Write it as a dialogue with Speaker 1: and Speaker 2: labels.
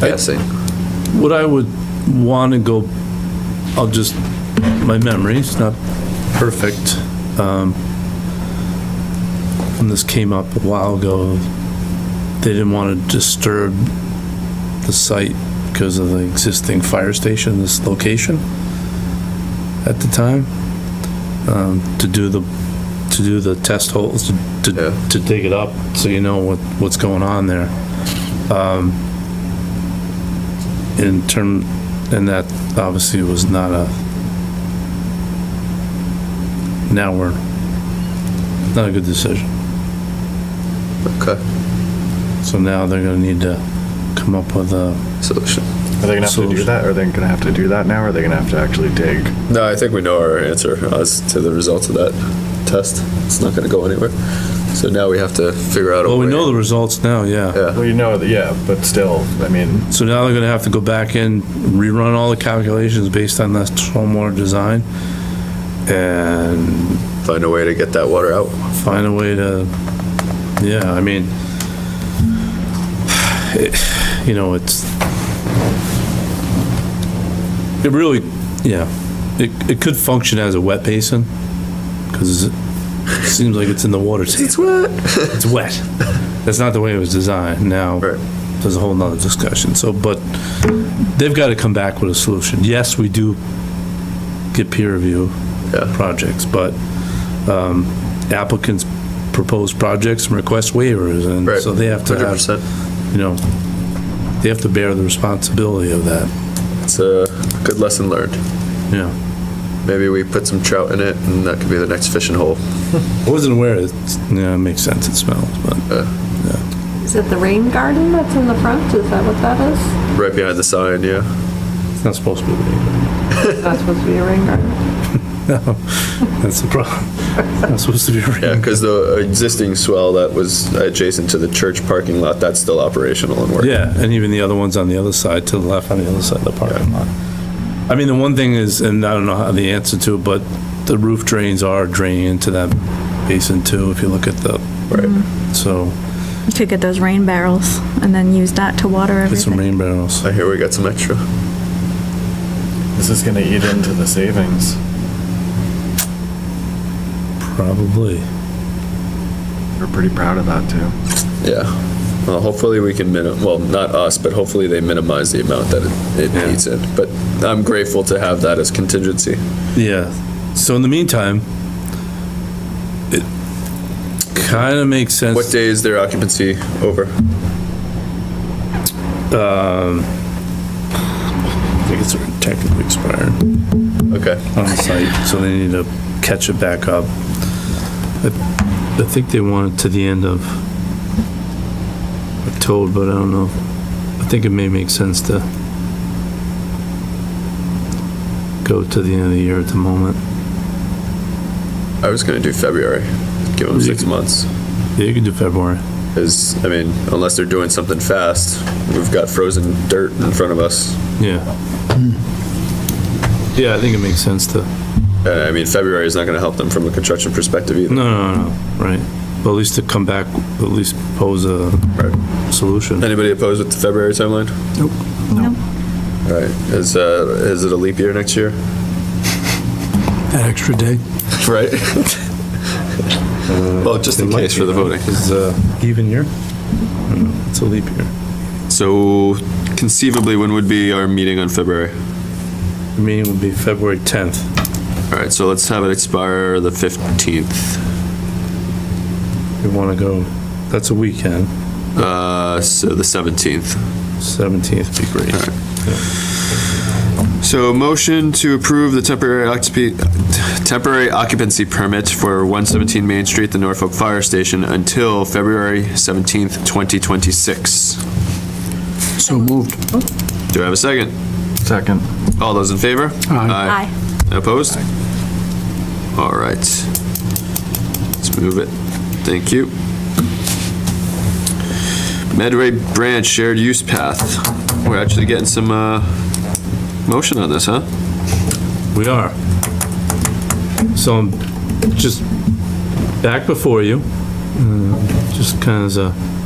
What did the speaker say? Speaker 1: Passing.
Speaker 2: What I would want to go, I'll just, my memory's not perfect. um, And this came up a while ago. They didn't want to disturb the site because of the existing fire station, this location at the time, um, to do the, to do the test holes, to-
Speaker 1: Yeah.
Speaker 2: to, to dig it up so you know what, what's going on there Um, in term, and that obviously was not a, now we're, not a good decision.
Speaker 1: Okay,
Speaker 2: So now they're gonna need to come up with a,
Speaker 1: solution.
Speaker 3: Are they gonna have to do
Speaker 2: Solution.
Speaker 3: that? Are they gonna have to do that now? Or are they gonna have to actually dig?
Speaker 1: No, I think we know our answer as to the results of that test. It's not gonna go anywhere. So now we have to figure out a way.
Speaker 2: well, we know the results now, yeah.
Speaker 3: Well, you know, that- yeah, but still, I mean,
Speaker 2: So now they're gonna have to go back in, rerun all the calculations based on that stormwater design and
Speaker 1: Find a way to get that water out.
Speaker 2: find a way to, yeah, I mean, it- you know, it's, it really, yeah, it, it could function as a wet basin, because it seems like it's in the water, it's
Speaker 1: wet.
Speaker 2: wet. That's not the way it was designed, now,
Speaker 1: Right.
Speaker 2: there's a whole nother discussion, so, but they've got to come back with a solution. Yes, we do get peer review,
Speaker 1: Yeah,
Speaker 2: projects, but um, applicants propose projects and request waivers, and
Speaker 1: right.
Speaker 2: so they have to
Speaker 1: Hundred
Speaker 2: have,
Speaker 1: percent.
Speaker 2: you know, they have to bear the responsibility of that,
Speaker 1: It's a good lesson learned.
Speaker 2: you know.
Speaker 1: Maybe we put some trout in it and that could be the next fishing hole.
Speaker 2: I wasn't aware, it's- yeah, it makes sense, it smells, but,
Speaker 4: Is it the rain garden that's in the front? Is that what that is?
Speaker 1: Right behind the sign, yeah.
Speaker 2: it's not supposed to be, rain.
Speaker 4: Is that supposed to be a rain garden?
Speaker 2: that's the problem. It's not supposed to be
Speaker 1: Yeah,
Speaker 2: rain.
Speaker 1: because the existing swell that was adjacent to the church parking lot, that's still operational and working.
Speaker 2: Yeah, and even the other ones on the other side, to the left, on the other side of the parking lot. I mean, the one thing is, and I don't know how the answer to it, but the roof drains are draining into that basin too, if you look at the,
Speaker 1: Right.
Speaker 2: so,
Speaker 5: You could get those rain barrels and then use that to water
Speaker 2: get some rain
Speaker 5: everything.
Speaker 2: barrels.
Speaker 1: I hear we got some extra.
Speaker 3: this is gonna eat into the savings.
Speaker 2: Probably.
Speaker 3: We're pretty proud of that too.
Speaker 1: Yeah. Well, hopefully we can minim, well, not us, but hopefully they minimize the amount that it, it
Speaker 2: Yeah.
Speaker 1: needs in. But I'm grateful to have that as contingency.
Speaker 2: Yeah. So in the meantime, it kind of makes sense.
Speaker 1: What day is their occupancy over?
Speaker 2: Tickets are technically expired
Speaker 1: Okay.
Speaker 2: on the site, so they need to catch it back up. I I think they want it to the end of October, but I don't know. I think it may make sense to go to the end of the year at the moment.
Speaker 1: I was gonna do February, give them six months.
Speaker 2: Yeah, you could do February.
Speaker 1: Cause, I mean, unless they're doing something fast, we've got frozen dirt in front of us.
Speaker 2: Yeah. Yeah, I think it makes sense to.
Speaker 1: Uh, I mean, February is not gonna help them from a construction perspective either.
Speaker 2: No, no, no, right. But at least to come back, at least pose a solution.
Speaker 1: Anybody opposed with the February timeline?
Speaker 5: Nope.
Speaker 1: All right, is, uh, is it a leap year next year?
Speaker 2: An extra day?
Speaker 1: Right? Well, just in case for the voting.
Speaker 2: Is, uh, even year? I don't know, It's a leap year.
Speaker 1: So conceivably, when would be our meeting on February?
Speaker 2: The Meeting would be February 10th.
Speaker 1: All right, so let's have it expire the 15th.
Speaker 2: We want to go, that's a weekend.
Speaker 1: Uh, so the 17th.
Speaker 2: 17th would be great.
Speaker 1: So motion to approve the temporary occupancy, temporary occupancy permit for 117 Main Street, the Norfolk Fire Station, until February 17th, 2026.
Speaker 6: So moved.
Speaker 1: Do I have a second?
Speaker 3: Second.
Speaker 1: All those in favor?
Speaker 5: Aye.
Speaker 1: Opposed? All right. Let's move it. Thank you. Medway Branch Shared Use Path. We're actually getting some, uh, motion on this, huh?
Speaker 2: We are. So I'm just back before you, uh, just kind of as a